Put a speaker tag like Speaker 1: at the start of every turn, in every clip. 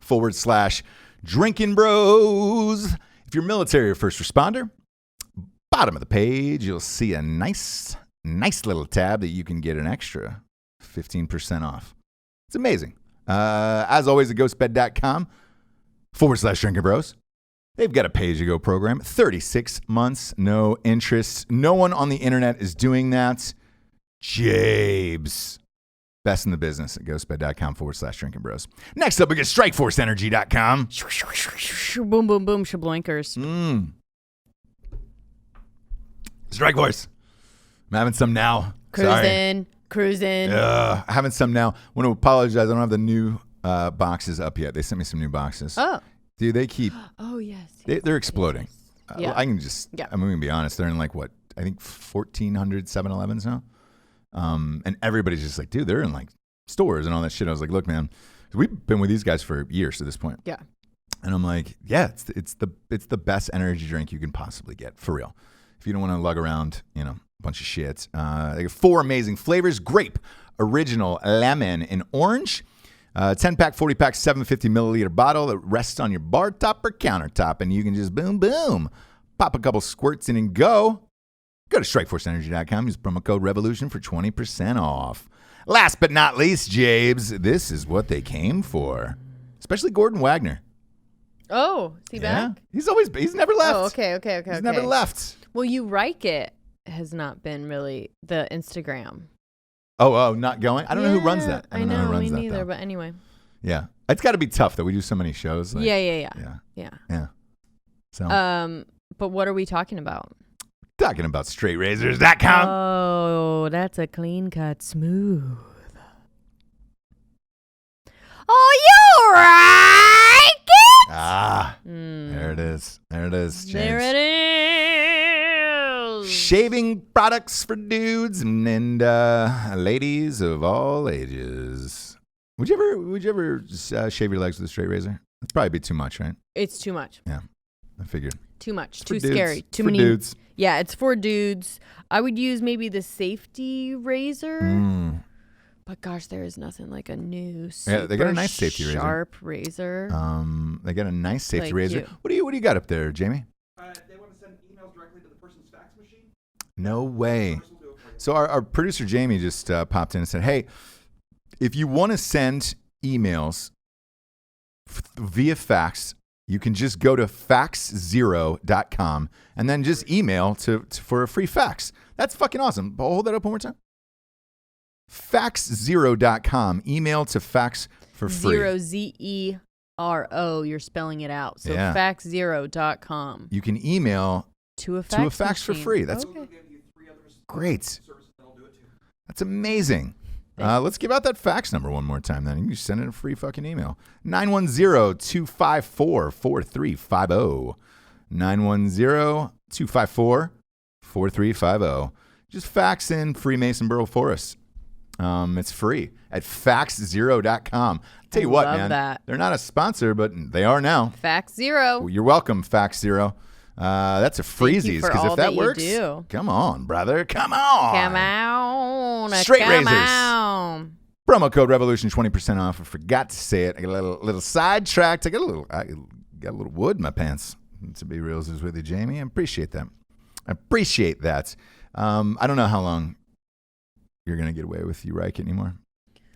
Speaker 1: forward slash drinking bros. If you're military or first responder, bottom of the page, you'll see a nice, nice little tab that you can get an extra 15% off. It's amazing. Uh, as always, at ghostbed.com forward slash drinking bros. They've got a pay as you go program, 36 months, no interest. No one on the internet is doing that. Jabes. Best in the business at ghostbed.com forward slash drinking bros. Next up, we get strikeforceenergy.com.
Speaker 2: Boom, boom, boom, shablankers.
Speaker 1: Mm. Strike Force. I'm having some now. Sorry.
Speaker 2: Cruising, cruising.
Speaker 1: Ugh, I'm having some now. want to apologize. I don't have the new uh, boxes up yet. They sent me some new boxes.
Speaker 2: Oh,
Speaker 1: Dude, they keep
Speaker 2: oh yes.
Speaker 1: they, they're exploding. Uh,
Speaker 2: Yeah.
Speaker 1: I can just,
Speaker 2: Yeah.
Speaker 1: I'm going to be honest. They're in like what, I think 1,400 7 Elevens now. Um, and everybody's just like, dude, they're in like stores and all that shit. I was like, look, man, we've been with these guys for years to this point.
Speaker 2: Yeah.
Speaker 1: And I'm like, yeah, it's the, it's the it's the best energy drink you can possibly get for real. If you don't want to lug around, you know, a bunch of shit. Uh, they got four amazing flavors: grape, original, lemon, and orange. Uh, 10 pack, 40 pack, 750 milliliter bottle that rests on your bar top or countertop, and you can just boom, boom, pop a couple squirts in and go. Go to strikeforceenergy.com, use promo code REVOLUTION for 20% off. Last but not least, Jabes, this is what they came for, especially Gordon Wagner.
Speaker 2: Oh, see back.
Speaker 1: He's always he's never left.
Speaker 2: Oh, okay, okay, okay.
Speaker 1: He's
Speaker 2: okay.
Speaker 1: never left.
Speaker 2: Well, you Reich it has not been really the Instagram.
Speaker 1: Oh, oh, not going. I don't know who runs
Speaker 2: Yeah,
Speaker 1: that. I don't know, who runs
Speaker 2: me
Speaker 1: that
Speaker 2: neither.
Speaker 1: though.
Speaker 2: But anyway,
Speaker 1: yeah. It's got to be tough that we do so many shows. like-
Speaker 2: yeah, yeah, yeah,
Speaker 1: Yeah.
Speaker 2: yeah,
Speaker 1: Yeah. So,
Speaker 2: Um, but what are we talking about?
Speaker 1: talking about straightrazors.com.
Speaker 2: oh, that's a clean cut, smooth. Oh, you Reich it?
Speaker 1: ah,
Speaker 2: Mm.
Speaker 1: there it is. There it is, James.
Speaker 2: There it is.
Speaker 1: Shaving products for dudes and, and uh, ladies of all ages. Would you ever would you ever uh, shave your legs with a straight razor? That'd probably be too much, right?
Speaker 2: It's too much.
Speaker 1: I figured.
Speaker 2: Too much.
Speaker 1: For
Speaker 2: Too
Speaker 1: dudes.
Speaker 2: scary. Too
Speaker 1: for
Speaker 2: many.
Speaker 1: dudes.
Speaker 2: Yeah, it's for dudes. I would use maybe the safety razor,
Speaker 1: Mm.
Speaker 2: but gosh, there is nothing like a new super
Speaker 1: Yeah, they got a nice safety razor.
Speaker 2: sharp razor.
Speaker 1: Um, they got a nice safety
Speaker 2: Like
Speaker 1: razor.
Speaker 2: you.
Speaker 1: What do you What do you got up there, Jamie?
Speaker 3: Uh, they want to send emails directly to the person's fax machine.
Speaker 1: No way.
Speaker 3: Person will do it for you.
Speaker 1: So our, our producer Jamie just uh, popped in and said, "Hey, if you want to send emails f- via fax, you can just go to faxzero.com and then just email to, to for a free fax. That's fucking awesome. But hold that up one more time. Faxzero.com. Email to fax for free.
Speaker 2: Zero Z E R O. You're spelling it out. So
Speaker 1: Yeah.
Speaker 2: faxzero.com
Speaker 1: You can email
Speaker 2: to a fax
Speaker 1: to a fax for
Speaker 2: machine.
Speaker 1: free. That's
Speaker 2: okay.
Speaker 3: They'll give you three other s-
Speaker 1: great.
Speaker 3: services that'll do it too.
Speaker 1: That's amazing. Uh, let's give out that fax number one more time then. You can send in a free fucking email. 910-254-4350. 910-254-4350. oh. Just fax in Freemason Borough Forest. Um, it's free at faxzero.com. Tell
Speaker 2: I
Speaker 1: you what,
Speaker 2: love
Speaker 1: man.
Speaker 2: that.
Speaker 1: They're not a sponsor, but they are now.
Speaker 2: Fax zero.
Speaker 1: Well, You're welcome, Fax Zero. Uh, that's a
Speaker 2: you
Speaker 1: freezies
Speaker 2: for
Speaker 1: because
Speaker 2: all
Speaker 1: if that
Speaker 2: that you
Speaker 1: works,
Speaker 2: do.
Speaker 1: come on, brother, come on.
Speaker 2: Come on.
Speaker 1: Oh, Straight
Speaker 2: come
Speaker 1: razors.
Speaker 2: On.
Speaker 1: Promo code Revolution twenty percent off. I forgot to say it. I got a little, little sidetracked. I got a little I got a little wood in my pants. To be real is with you, Jamie. I appreciate that. I appreciate that. Um, I don't know how long you're gonna get away with you Reich anymore.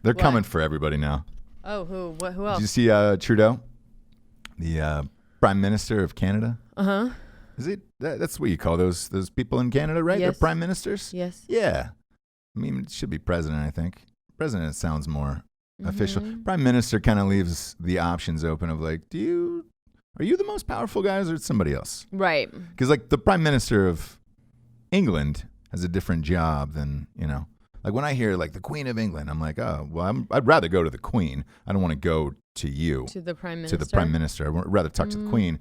Speaker 1: They're
Speaker 2: What?
Speaker 1: coming for everybody now.
Speaker 2: Oh, who? What? Who
Speaker 1: Did you
Speaker 2: else?
Speaker 1: see uh, Trudeau, the uh, Prime Minister of Canada?
Speaker 2: Uh huh.
Speaker 1: Is it that, that's what you call those those people in Canada, right?
Speaker 2: Yes.
Speaker 1: They're prime ministers.
Speaker 2: Yes.
Speaker 1: Yeah. I mean, it should be president, I think. President sounds more official.
Speaker 2: Mhm.
Speaker 1: Prime minister kind of leaves the options open of like, do you are you the most powerful guy or is somebody else?
Speaker 2: Right.
Speaker 1: Because like the prime minister of England has a different job than you know. Like when I hear like the Queen of England, I'm like, oh well, I'm, I'd rather go to the Queen. I don't want to go to you
Speaker 2: To the
Speaker 1: to
Speaker 2: prime minister.
Speaker 1: the prime minister. I'd rather talk to the
Speaker 2: Mm.
Speaker 1: Queen.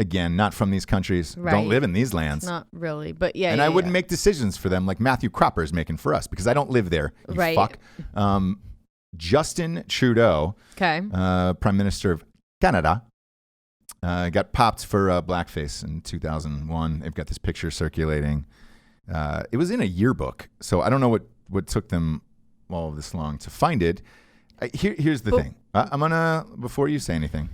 Speaker 1: Again, not from these countries.
Speaker 2: Right.
Speaker 1: Don't live in these
Speaker 2: It's
Speaker 1: lands
Speaker 2: not really, but yeah.
Speaker 1: and
Speaker 2: yeah,
Speaker 1: I wouldn't
Speaker 2: yeah.
Speaker 1: make decisions for them like Matthew Cropper is making for us because I don't live there. You
Speaker 2: Right.
Speaker 1: fuck. Um, Justin Trudeau,
Speaker 2: Okay.
Speaker 1: uh, Prime Minister of Canada, uh, got popped for uh, blackface in 2001. They've got this picture circulating. Uh, it was in a yearbook, so I don't know what, what took them all of this long to find it. I, here, here's the
Speaker 2: But
Speaker 1: thing. I, I'm gonna before you say anything.